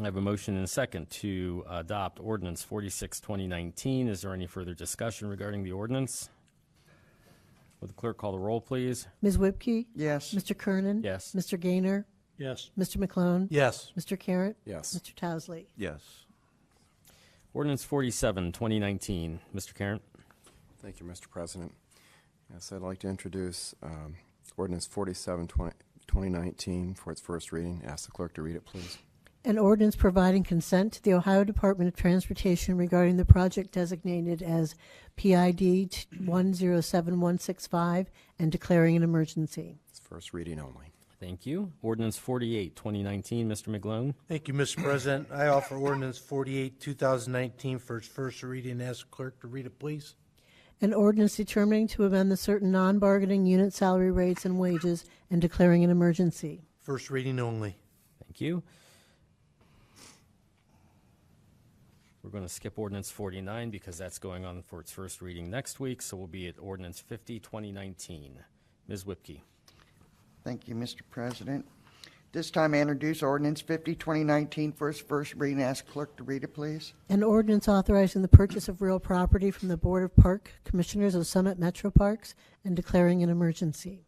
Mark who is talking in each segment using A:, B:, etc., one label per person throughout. A: I have a motion and a second to adopt ordinance 46, 2019. Is there any further discussion regarding the ordinance? Would the clerk call the roll, please?
B: Ms. Whipke?
C: Yes.
B: Mr. Kernan?
A: Yes.
B: Mr. Gaynor?
C: Yes.
B: Mr. McClone?
C: Yes.
B: Mr. Carratt?
D: Yes.
B: Mr. Towesley?
D: Yes.
A: Ordinance 47, 2019. Mr. Karen?
D: Thank you, Mr. President. Yes, I'd like to introduce um, ordinance 47, 20 2019 for its first reading. Ask the clerk to read it, please.
B: An ordinance providing consent to the Ohio Department of Transportation regarding the project designated as PID 107165 and declaring an emergency.
D: It's first reading only.
A: Thank you. Ordinance 48, 2019. Mr. McGlone?
C: Thank you, Mr. President. I offer ordinance 48, 2019 for its first reading. Ask clerk to read it, please.
B: An ordinance determining to amend the certain non-bargaining unit salary rates and wages and declaring an emergency.
C: First reading only.
A: Thank you. We're going to skip ordinance 49 because that's going on for its first reading next week, so we'll be at ordinance 50, 2019. Ms. Whipke?
E: Thank you, Mr. President. This time I introduce ordinance 50, 2019 for its first reading. Ask clerk to read it, please.
B: An ordinance authorizing the purchase of real property from the Board of Park Commissioners of Summit Metro Parks and declaring an emergency.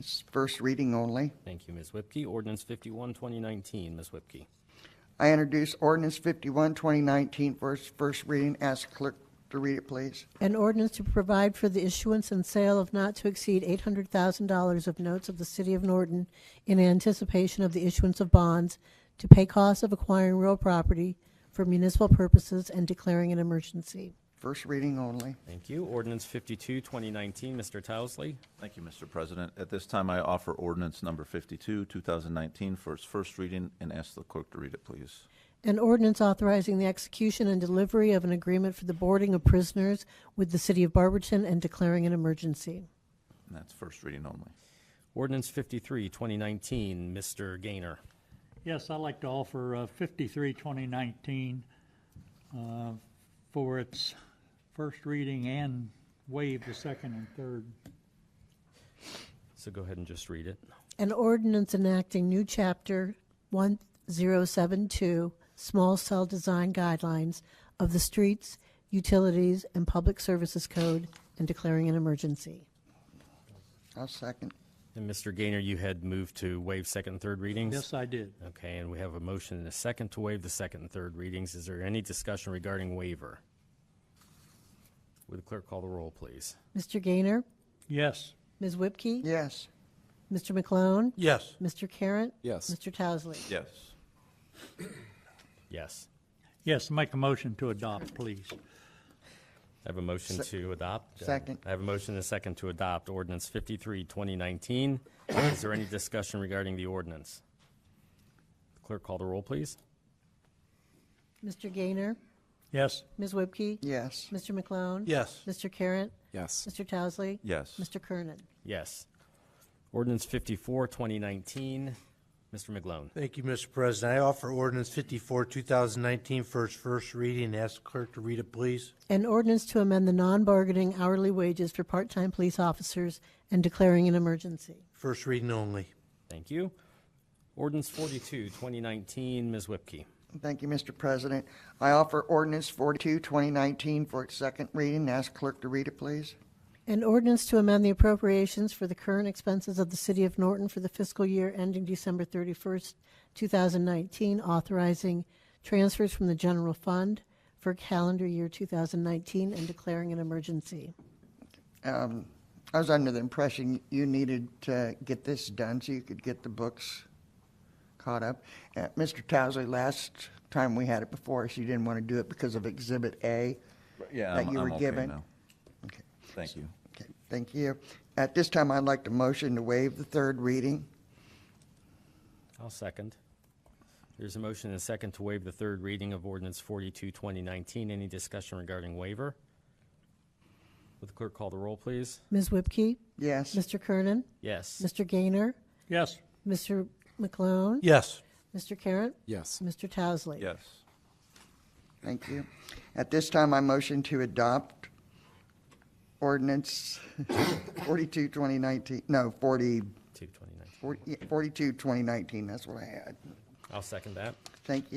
E: It's first reading only.
A: Thank you, Ms. Whipke. Ordinance 51, 2019. Ms. Whipke?
E: I introduce ordinance 51, 2019 for its first reading. Ask clerk to read it, please.
B: An ordinance to provide for the issuance and sale of not to exceed $800,000 of notes of the City of Norton in anticipation of the issuance of bonds to pay costs of acquiring real property for municipal purposes and declaring an emergency.
E: First reading only.
A: Thank you. Ordinance 52, 2019. Mr. Towesley?
F: Thank you, Mr. President. At this time, I offer ordinance number 52, 2019, for its first reading, and ask the clerk to read it, please.
B: An ordinance authorizing the execution and delivery of an agreement for the boarding of prisoners with the City of Barberton and declaring an emergency.
F: And that's first reading only.
A: Ordinance 53, 2019. Mr. Gaynor?
G: Yes, I'd like to offer uh, 53, 2019 uh, for its first reading and waive the second and third.
A: So go ahead and just read it.
B: An ordinance enacting new chapter 1072, small cell design guidelines of the streets, utilities, and public services code and declaring an emergency.
E: I'll second.
A: And Mr. Gaynor, you had moved to waive second and third readings?
G: Yes, I did.
A: Okay, and we have a motion and a second to waive the second and third readings. Is there any discussion regarding waiver? Would the clerk call the roll, please?
B: Mr. Gaynor?
G: Yes,
B: Ms. Whipke?
E: Yes.
B: Mr. McClone?
C: Yes.
B: Mr. Carratt?
D: Yes.
B: Mr. Towesley?
F: Yes.
A: Yes.
G: yes, make a motion to adopt, please.
A: I have a motion to adopt. uh,
E: Second.
A: I have a motion and a second to adopt ordinance 53, 2019. Is there any discussion regarding the ordinance? Clerk, call the roll, please.
B: Mr. Gaynor?
G: Yes,
B: Ms. Whipke?
E: Yes.
B: Mr. McClone?
C: Yes.
B: Mr. Carratt?
D: Yes.
B: Mr. Towesley?
F: Yes.
B: Mr. Kernan?
A: Yes. Ordinance 54, 2019. Mr. McGlone.
C: Thank you, Mr. President. I offer ordinance 54, 2019 for its first reading. Ask clerk to read it, please.
B: An ordinance to amend the non-bargaining hourly wages for part-time police officers and declaring an emergency.
C: First reading only.
A: Thank you. Ordinance 42, 2019. Ms. Whipke.
E: Thank you, Mr. President. I offer ordinance 42, 2019 for its second reading. Ask clerk to read it, please.
B: An ordinance to amend the appropriations for the current expenses of the City of Norton for the fiscal year ending December 31st, 2019, authorizing transfers from the general fund for calendar year 2019 and declaring an emergency.
E: Um, I was under the impression you needed to get this done so you could get the books caught up. Uh, Mr. Towsley, last time we had it before us, you didn't want to do it because of Exhibit A.
F: Yeah,
E: That
F: I'm
E: you
F: I'm
E: were
F: okay
E: given.
F: now.
E: Okay,
F: Thank you.
E: okay, thank you. At this time, I'd like to motion to waive the third reading.
A: I'll second. There's a motion and a second to waive the third reading of ordinance 42, 2019. Any discussion regarding waiver? Would the clerk call the roll, please?
B: Ms. Whipke?
E: Yes.
B: Mr. Kernan?
A: Yes.
B: Mr. Gaynor?
G: yes,
B: Mr. McClone?
C: Yes.
B: Mr. Carratt?
D: Yes.
B: Mr. Towesley?
F: Yes.
E: Thank you. At this time, I motion to adopt ordinance 42, 2019, no,
A: 2,
E: 40,
A: 2019.
E: 40 yeah, 42, 2019, that's what I had.
A: I'll second that.
E: Thank you.